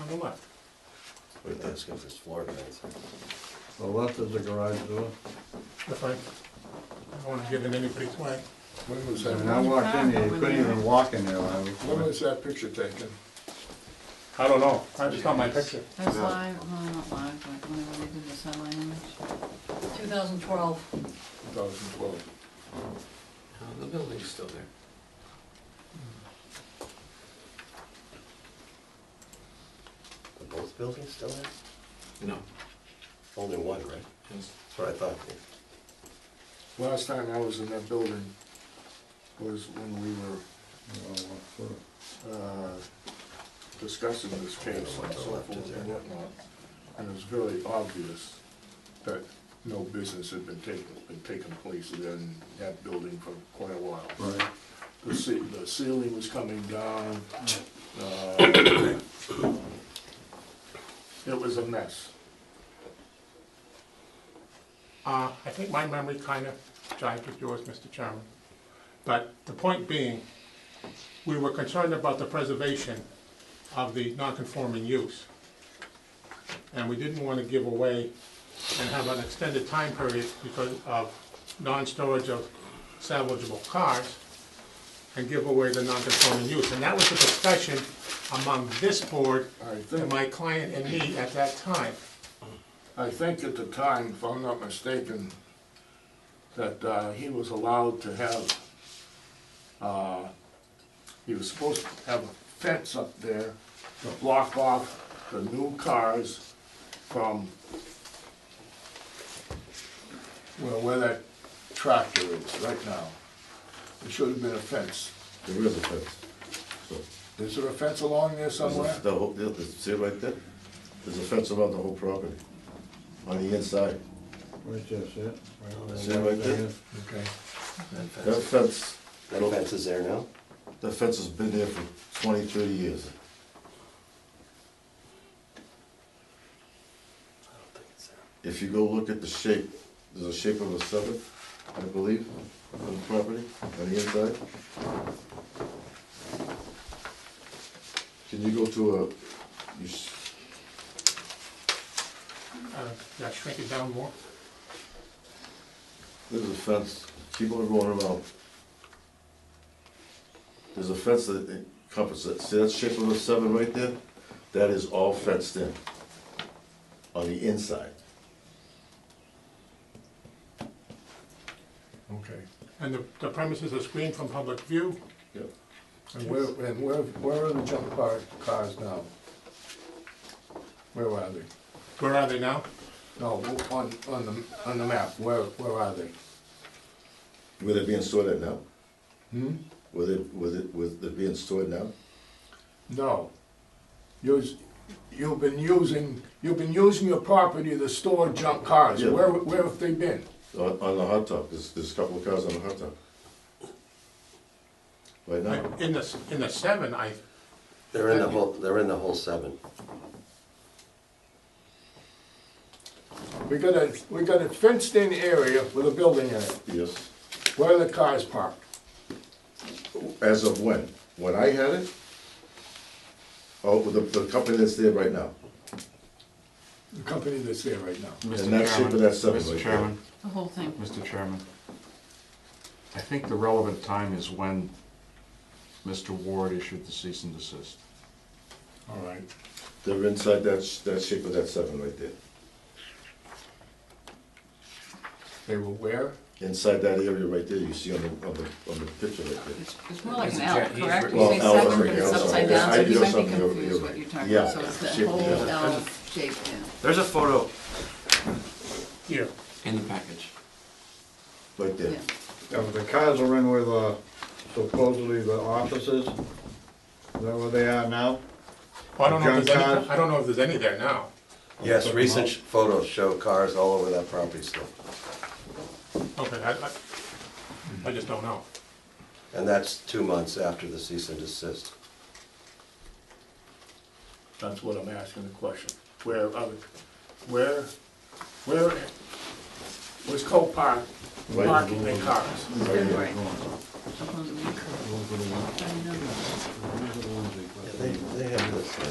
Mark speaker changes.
Speaker 1: on the left.
Speaker 2: But that's because it's floor plans.
Speaker 3: The left is the garage door.
Speaker 1: That's right. I don't wanna get in anybody's way.
Speaker 4: When was
Speaker 3: And I
Speaker 4: that,
Speaker 3: walked in here, you couldn't even walk in there. when I was-
Speaker 4: when was that picture taken?
Speaker 1: I don't know, I just got my picture.
Speaker 5: That's live, well, not live, but whenever they did the satellite image. Two thousand twelve.
Speaker 4: 2012.
Speaker 2: No, Oh, the building's still there. Are both buildings still there? No. Only one, right? Yes. That's what I thought.
Speaker 4: Last time I was in that building was when we were uh, discussing this case and so forth and whatnot. And it was very obvious that no business had been taken, been taking place in that building for quite a while.
Speaker 3: Right.
Speaker 4: The ce- the ceiling was coming down. uh, It was a mess.
Speaker 1: Uh, I think my memory kinda jives with yours, Mr. Chairman. But the point being, we were concerned about the preservation of the non-conforming use. And we didn't wanna give away and have an extended time period because of non-storage of salvageable cars and give away the non-conforming use. And that was a discussion among this board
Speaker 4: I
Speaker 1: and
Speaker 4: think,
Speaker 1: my client and me at that time.
Speaker 4: I think at the time, if I'm not mistaken, that uh, he was allowed to have, uh, he was supposed to have a fence up there to block off the new cars from, well, where that tractor is right now. There should have been a fence.
Speaker 6: There is a fence. So,
Speaker 4: Is there a fence along there somewhere?
Speaker 6: there's a- the whole, there- there's- see right there? There's a fence around the whole property, on the inside.
Speaker 3: Right there, see it?
Speaker 6: See it right there?
Speaker 4: Okay.
Speaker 6: That fence,
Speaker 2: That fence is there now?
Speaker 6: that fence has been there for 20, 30 years.
Speaker 2: I don't think it's there.
Speaker 6: If you go look at the shape, there's a shape of a seven, I believe, on the property, on the inside. Can you go to a, you, s-
Speaker 1: Uh, Yeah, shrink it down more.
Speaker 6: There's a fence, keep on going around. There's a fence that encompasses it, see that shape of a seven right there? That is all fenced in, on the inside.
Speaker 4: Okay.
Speaker 1: And the- the premises are screened from public view.
Speaker 6: Yep.
Speaker 4: And where, and where, where are the junk car, cars now? Where are they?
Speaker 1: Where are they now?
Speaker 4: No, on, on the, on the map, where, where are they?
Speaker 6: Where they being stored at now?
Speaker 4: Hmm?
Speaker 6: Where they, where they, where they being stored now?
Speaker 4: No. You's, you've been using, you've been using your property to store junk cars,
Speaker 6: Yeah.
Speaker 4: where, where have they been?
Speaker 6: On, on the hot top, there's, there's a couple of cars on the hot top. Right now,
Speaker 1: In the, s- in the seven, I,
Speaker 2: They're in the whole, they're in the whole seven.
Speaker 4: We got a, we got a fenced in area with a building in it,
Speaker 6: yes.
Speaker 4: where are the cars parked?
Speaker 6: As of when? When I had it? Oh, the, the company that's there right now.
Speaker 4: The company that's there right now.
Speaker 7: Mr.
Speaker 6: And that's it for
Speaker 7: Chairman,
Speaker 6: that seven right there.
Speaker 7: Mr. Chairman,
Speaker 5: The whole thing.
Speaker 7: Mr. Chairman, I think the relevant time is when Mr. Ward issued the cease and desist.
Speaker 4: All right.
Speaker 6: They're inside that, sh- that shape of that seven right there,
Speaker 4: They were where?
Speaker 6: inside that area right there, you see on the, on the, on the picture right there.
Speaker 5: It's, it's more like an
Speaker 8: Mr.
Speaker 5: L,
Speaker 8: Chair, he's
Speaker 5: correct?
Speaker 8: re-
Speaker 5: You say
Speaker 6: Well, L,
Speaker 5: seven, but
Speaker 6: okay,
Speaker 5: it's
Speaker 6: I'm sorry.
Speaker 5: upside down, so
Speaker 6: I
Speaker 5: you
Speaker 6: do
Speaker 5: might be
Speaker 6: something over
Speaker 5: confused
Speaker 6: here.
Speaker 5: what you're talking
Speaker 6: Yeah,
Speaker 5: about, so it's that
Speaker 6: shape,
Speaker 5: whole
Speaker 6: yeah.
Speaker 5: L shape, yeah.
Speaker 8: There's a photo
Speaker 1: here,
Speaker 8: in the package.
Speaker 6: Right there,
Speaker 5: yeah.
Speaker 3: Yeah, but the cars are in where the supposedly the offices, is that where they are now?
Speaker 1: Oh, I don't know if there's any,
Speaker 3: Junk cars?
Speaker 1: I don't know if there's any there now.
Speaker 2: Yes, recent sh- photos show cars all over that property still.
Speaker 1: Okay, I, I, I just don't know.
Speaker 2: And that's two months after the cease and desist.
Speaker 4: That's what I'm asking the question. Where, are the- where, where was Copart
Speaker 6: Right.
Speaker 4: parking their cars?
Speaker 6: Oh,
Speaker 5: February, supposedly.
Speaker 3: Those are the ones-
Speaker 5: I know.
Speaker 3: those are the ones they put-
Speaker 2: Yeah, They, they have this.